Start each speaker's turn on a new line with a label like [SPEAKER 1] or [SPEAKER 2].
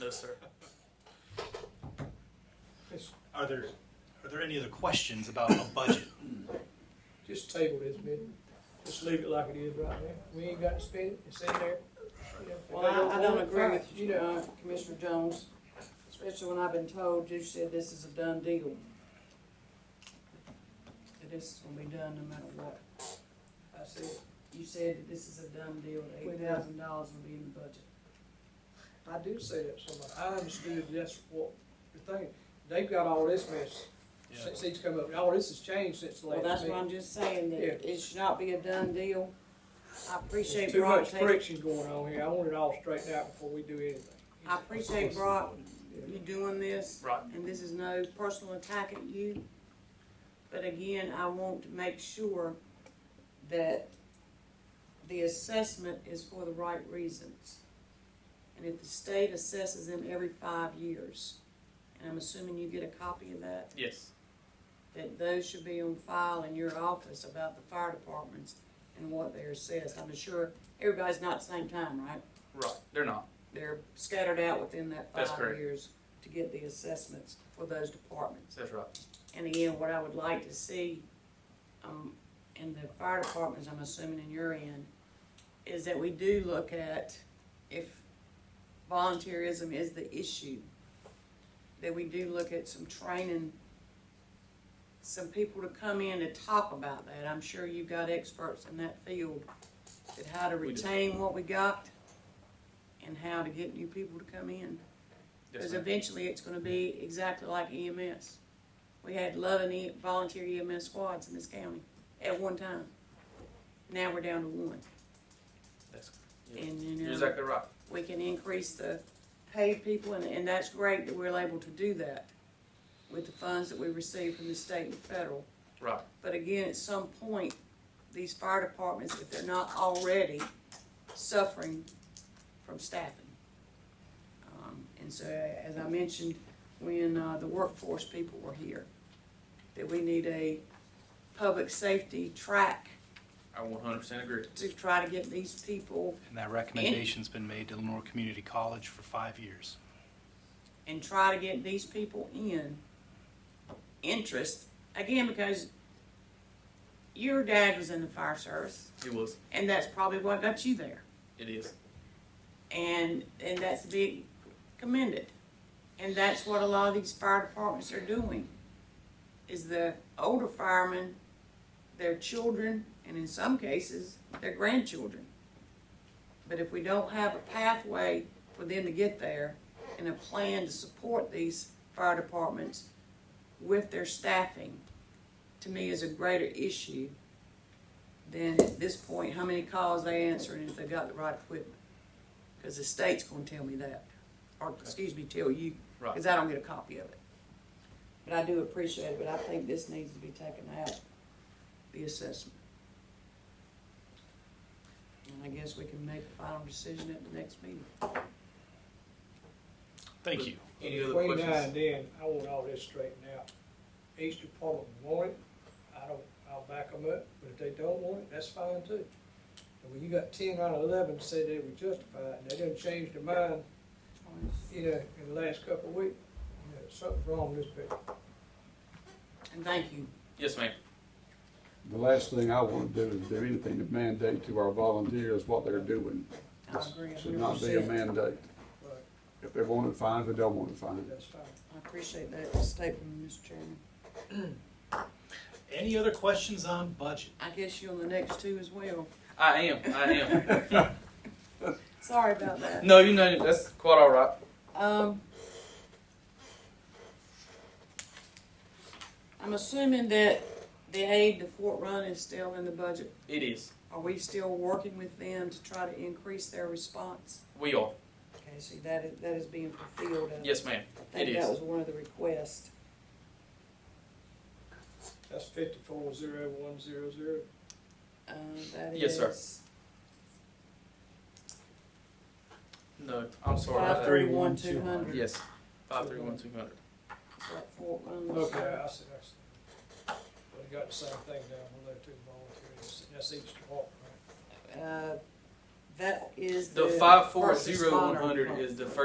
[SPEAKER 1] No, sir.
[SPEAKER 2] It's
[SPEAKER 3] Are there, are there any other questions about a budget?
[SPEAKER 2] just table this bit, just leave it like it is right now, we ain't got to spend it, it's in there. You know, if
[SPEAKER 4] Well,
[SPEAKER 2] they
[SPEAKER 4] I, I don't
[SPEAKER 2] want it,
[SPEAKER 4] agree
[SPEAKER 2] fine.
[SPEAKER 4] with you, uh, Commissioner Jones, especially when I've been told, you said this is a done deal. That this is gonna be done no matter what. I said, you said that this is a done deal, eight thousand dollars will be in the budget.
[SPEAKER 2] I do say that somewhere, I understood that's what the thing, they've got all this mess since he's come up, all this has changed since the
[SPEAKER 4] Well, that's
[SPEAKER 2] last meeting.
[SPEAKER 4] what I'm just saying, that
[SPEAKER 2] Yeah.
[SPEAKER 4] it should not be a done deal. I
[SPEAKER 2] There's
[SPEAKER 4] appreciate
[SPEAKER 2] too
[SPEAKER 4] Brock
[SPEAKER 2] much
[SPEAKER 4] taking,
[SPEAKER 2] friction going on here, I want it all straightened out before we do anything.
[SPEAKER 4] I appreciate Brock, you doing this.
[SPEAKER 1] Right.
[SPEAKER 4] and this is no personal attack at you, but again, I want to make sure that the assessment is for the right reasons. And if the state assesses them every five years, and I'm assuming you get a copy of that,
[SPEAKER 1] Yes.
[SPEAKER 4] that those should be on file in your office about the fire departments and what they're assessed. I'm sure everybody's not at the same time, right?
[SPEAKER 1] Right. They're not.
[SPEAKER 4] They're scattered out within that
[SPEAKER 1] That's
[SPEAKER 4] five
[SPEAKER 1] correct.
[SPEAKER 4] years to get the assessments for those departments.
[SPEAKER 1] That's right.
[SPEAKER 4] And again, what I would like to see, um, in the fire departments, I'm assuming in your end, is that we do look at if volunteerism is the issue, that we do look at some training, some people to come in to talk about that. I'm sure you've got experts in that field, that how to
[SPEAKER 1] We do.
[SPEAKER 4] retain what we got and how to get new people to come in.
[SPEAKER 1] Yes,
[SPEAKER 4] Because
[SPEAKER 1] ma'am.
[SPEAKER 4] eventually it's gonna be exactly like EMS. We had eleven E- volunteer EMS squads in this county at one time. Now we're down to one.
[SPEAKER 1] That's,
[SPEAKER 4] And,
[SPEAKER 1] you're
[SPEAKER 4] you know,
[SPEAKER 1] exactly right.
[SPEAKER 4] we can increase the paid people and, and that's great that we're able to do that with the funds that we receive from the state and federal.
[SPEAKER 1] Right.
[SPEAKER 4] But again, at some point, these fire departments, if they're not already suffering from staffing. Um, And so, as I mentioned, when uh, the workforce people were here, that we need a public safety track
[SPEAKER 1] I 100% agree.
[SPEAKER 4] to try to get these people
[SPEAKER 3] And that recommendation's been made to Lenore Community College for five years.
[SPEAKER 4] and try to get these people in interest, again, because your dad was in the fire service,
[SPEAKER 1] It was.
[SPEAKER 4] and that's probably what got you there.
[SPEAKER 1] It is.
[SPEAKER 4] and and that's to be commended. And that's what a lot of these fire departments are doing. Is the older firemen, their children, and in some cases their grandchildren. But if we don't have a pathway for them to get there and a plan to support these fire departments with their staffing, to me is a greater issue than at this point how many calls they answer and if they got the right equipment. Because the state's gonna tell me that, or, excuse me, tell you,
[SPEAKER 1] Right.
[SPEAKER 4] because I don't get a copy of it. But I do appreciate it, but I think this needs to be taken out, the assessment. And I guess we can make a final decision at the next meeting.
[SPEAKER 3] Thank you.
[SPEAKER 1] Any other
[SPEAKER 2] Between now
[SPEAKER 1] questions?
[SPEAKER 2] and then, I want all this straightened out. Each department want it, I don't, I'll back them up, but if they don't want it, that's fine too. And when you got ten out of eleven said they were justified, and they didn't change their mind, you know, in the last couple of weeks, you know, something's wrong with this picture.
[SPEAKER 4] And thank you.
[SPEAKER 1] Yes, ma'am.
[SPEAKER 5] The last thing I want to do is do anything to mandate to our volunteers what they're doing.
[SPEAKER 4] I agree a
[SPEAKER 5] Should
[SPEAKER 4] hundred
[SPEAKER 5] not be a
[SPEAKER 4] percent.
[SPEAKER 5] mandate.
[SPEAKER 2] Right.
[SPEAKER 5] If they want it, fine. If they don't want it, fine.
[SPEAKER 2] That's fine.
[SPEAKER 4] I appreciate that statement, Mr. Chairman.
[SPEAKER 3] Any other questions on budget?
[SPEAKER 4] I guess you on the next two as well.
[SPEAKER 1] I am. I am.
[SPEAKER 4] Sorry about that.
[SPEAKER 1] no, you know, that's quite all right.
[SPEAKER 4] Um, I'm assuming that the aid to Fort Run is still in the budget.
[SPEAKER 1] It is.
[SPEAKER 4] Are we still working with them to try to increase their response?
[SPEAKER 1] We are.
[SPEAKER 4] Okay, see, that is, that is being fulfilled. I
[SPEAKER 1] Yes, ma'am.
[SPEAKER 4] think
[SPEAKER 1] it
[SPEAKER 4] That
[SPEAKER 1] is.
[SPEAKER 4] was one of the requests.
[SPEAKER 2] That's fifty-four zero one zero zero.
[SPEAKER 4] Uh, that
[SPEAKER 1] Yes, sir.
[SPEAKER 4] is
[SPEAKER 1] No, I'm sorry.
[SPEAKER 4] five
[SPEAKER 1] about that.
[SPEAKER 4] thirty-one, two hundred.
[SPEAKER 1] Yes. 531200.
[SPEAKER 4] Fort Run was-
[SPEAKER 2] Okay, I see, I see. Well, they got the same thing down below too, volunteers, that's each department, right?
[SPEAKER 4] Uh, that is the.
[SPEAKER 1] The five four
[SPEAKER 4] first
[SPEAKER 1] zero one
[SPEAKER 4] responder
[SPEAKER 1] hundred
[SPEAKER 4] part.
[SPEAKER 1] is the first.